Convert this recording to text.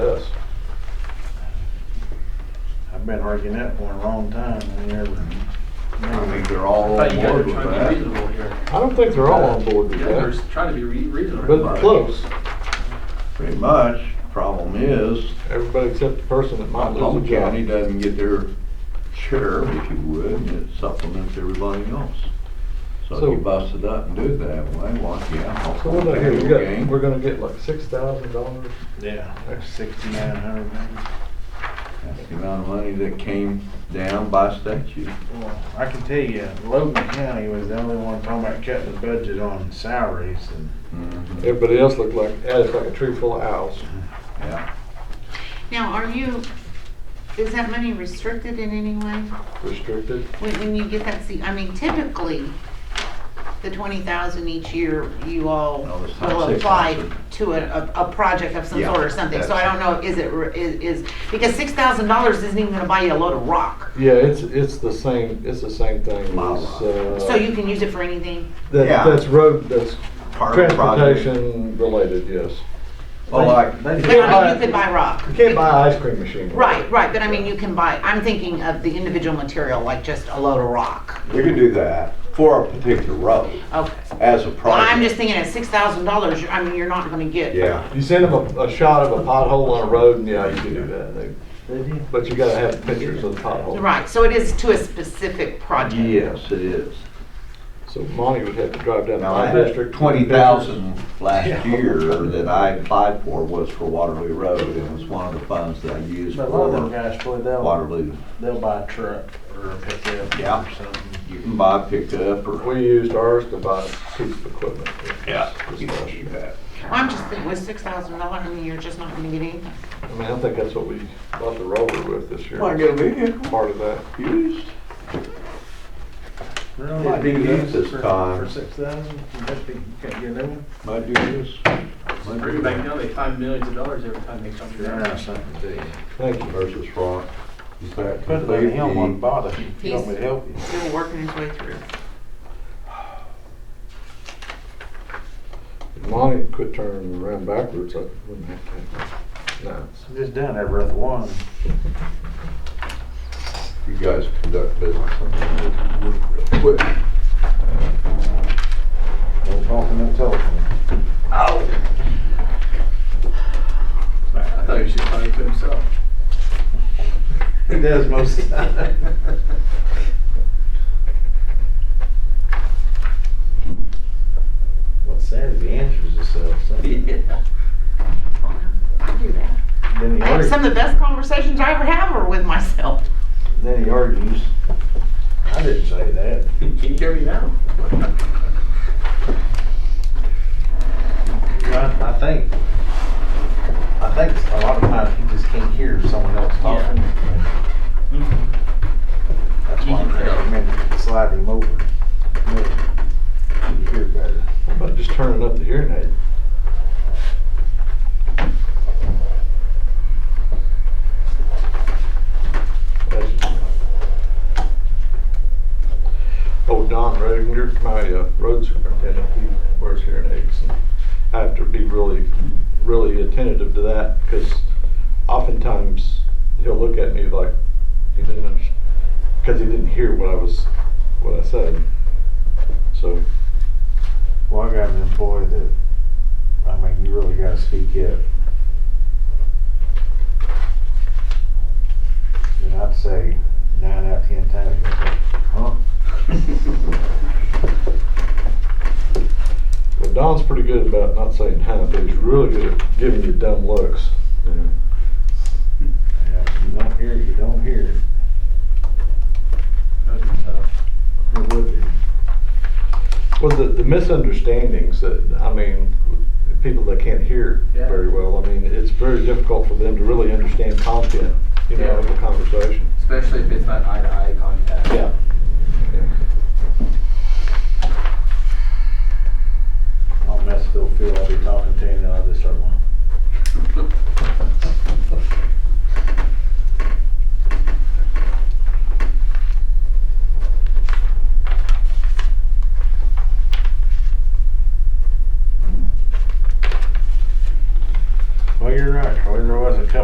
I've been arguing that for a long time, I never. I think they're all But on you guys are board with that. trying to be reasonable here. I don't think they're all on board with You guys that, are trying to be re- reasonable. but close. Pretty much, problem is, Everybody except the person that might Oklahoma lose a job. County doesn't get their share, if you would, and it supplements everybody else. So So- if you bust it up and do it that way, well, yeah. So what do I hear? We Oklahoma County got, will we're gonna get like six thousand dollars. Yeah, that's sixty-nine hundred. gain. That's the amount of money that came down by statute. Well, I can tell you, Logan County was the only one talking about cutting the budget on salaries and Mhm. Everybody else looked like, it's like a tree full of owls. Yeah, Now, are you, is that money restricted in any way? Restricted. When, when you get that, see, I mean typically, the twenty thousand each year, you all No, it's not will six apply thousand. to a, a, a project of some Yeah, sort or something, so I don't know, is it, re- is, is, because six thousand dollars isn't even gonna buy you a load of rock. Yeah, it's, it's the same, it's the same thing as, Model. So uh, you can use it for anything? that, Yeah. that's road, that's Part of the project. transportation related, yes. Well, like, They- You they- can't But I mean, buy, you could buy rock. you can't buy ice cream machine. Right, right, but I mean, you can buy, I'm thinking of the individual material, like just a load of rock. you can do that for a particular road Okay. as a Well, I'm project. just thinking at six thousand dollars, I mean, you're not gonna get. Yeah, You send them a, a shot of a pothole on a road and yeah, you can do that. They- they did. But you gotta have pictures of the pothole. Right, so it is to a specific project. yes, it is. So Monty would have to drive down to Now, I my had district. twenty thousand last year that I applied for was for Waterloo Road, and it was one of the funds that I used But a lot of them for guys, boy, they'll, Waterloo. they'll buy a truck or a pickup Yeah. or something. You can buy a pickup or. We used ours to buy a piece of equipment. You can do that. I'm just thinking with six thousand dollars, I mean, you're just not gonna get anything. I mean, I think that's what we bought the roller with this year. Well, I get a vehicle Part of that. used. Really? Might be used this For- time. For six thousand, that'd be, you can't get a new one? Might do this. might Bring do it back that. down, they find millions of dollars every time they come to They're that. not something to you. Thank you. Versus front. Is that Put it on him on complete? bottom, if you want me to help you. Still working his way through. If Monty quit turning around backwards, I wouldn't have to. No. I'm just done every other one. You guys conduct business. Quick. No talking, no telephone. I thought he should probably put himself. He does most of the time. What's sad is he answers himself, so I do that. then he I have argues, some of the best conversations I ever have are with myself. then he argues. I didn't say that. Can you hear me now? Right, I think, I think a lot of times he just can't hear someone else talking. That's why I recommend sliding him over. Make You hear better. How about just turning up the hearing aid? That's just- Oh, Don Redinger, my uh, road superintendent, he wears hearing aids. and I have to be really, really attentive to that because oftentimes he'll look at me like he didn't, understand because he didn't hear what I was, what I said. So Well, I got an employee that, I mean, you really gotta speak up. And I'd say nine out of ten times, he'll say, huh? Well, Don's pretty good about not saying hi, but he's really good at giving you dumb looks. Yeah, if you don't hear it, you don't hear it. That would be tough. It would be. Well, the, the misunderstandings that, I mean, people that can't hear Yeah. very well, I mean, it's very difficult for them to really understand content, you know, of a conversation. Especially if it's not eye to eye contact. Yeah. I'll mess Phil Phil, I'll be talking to him, and I'll just start one.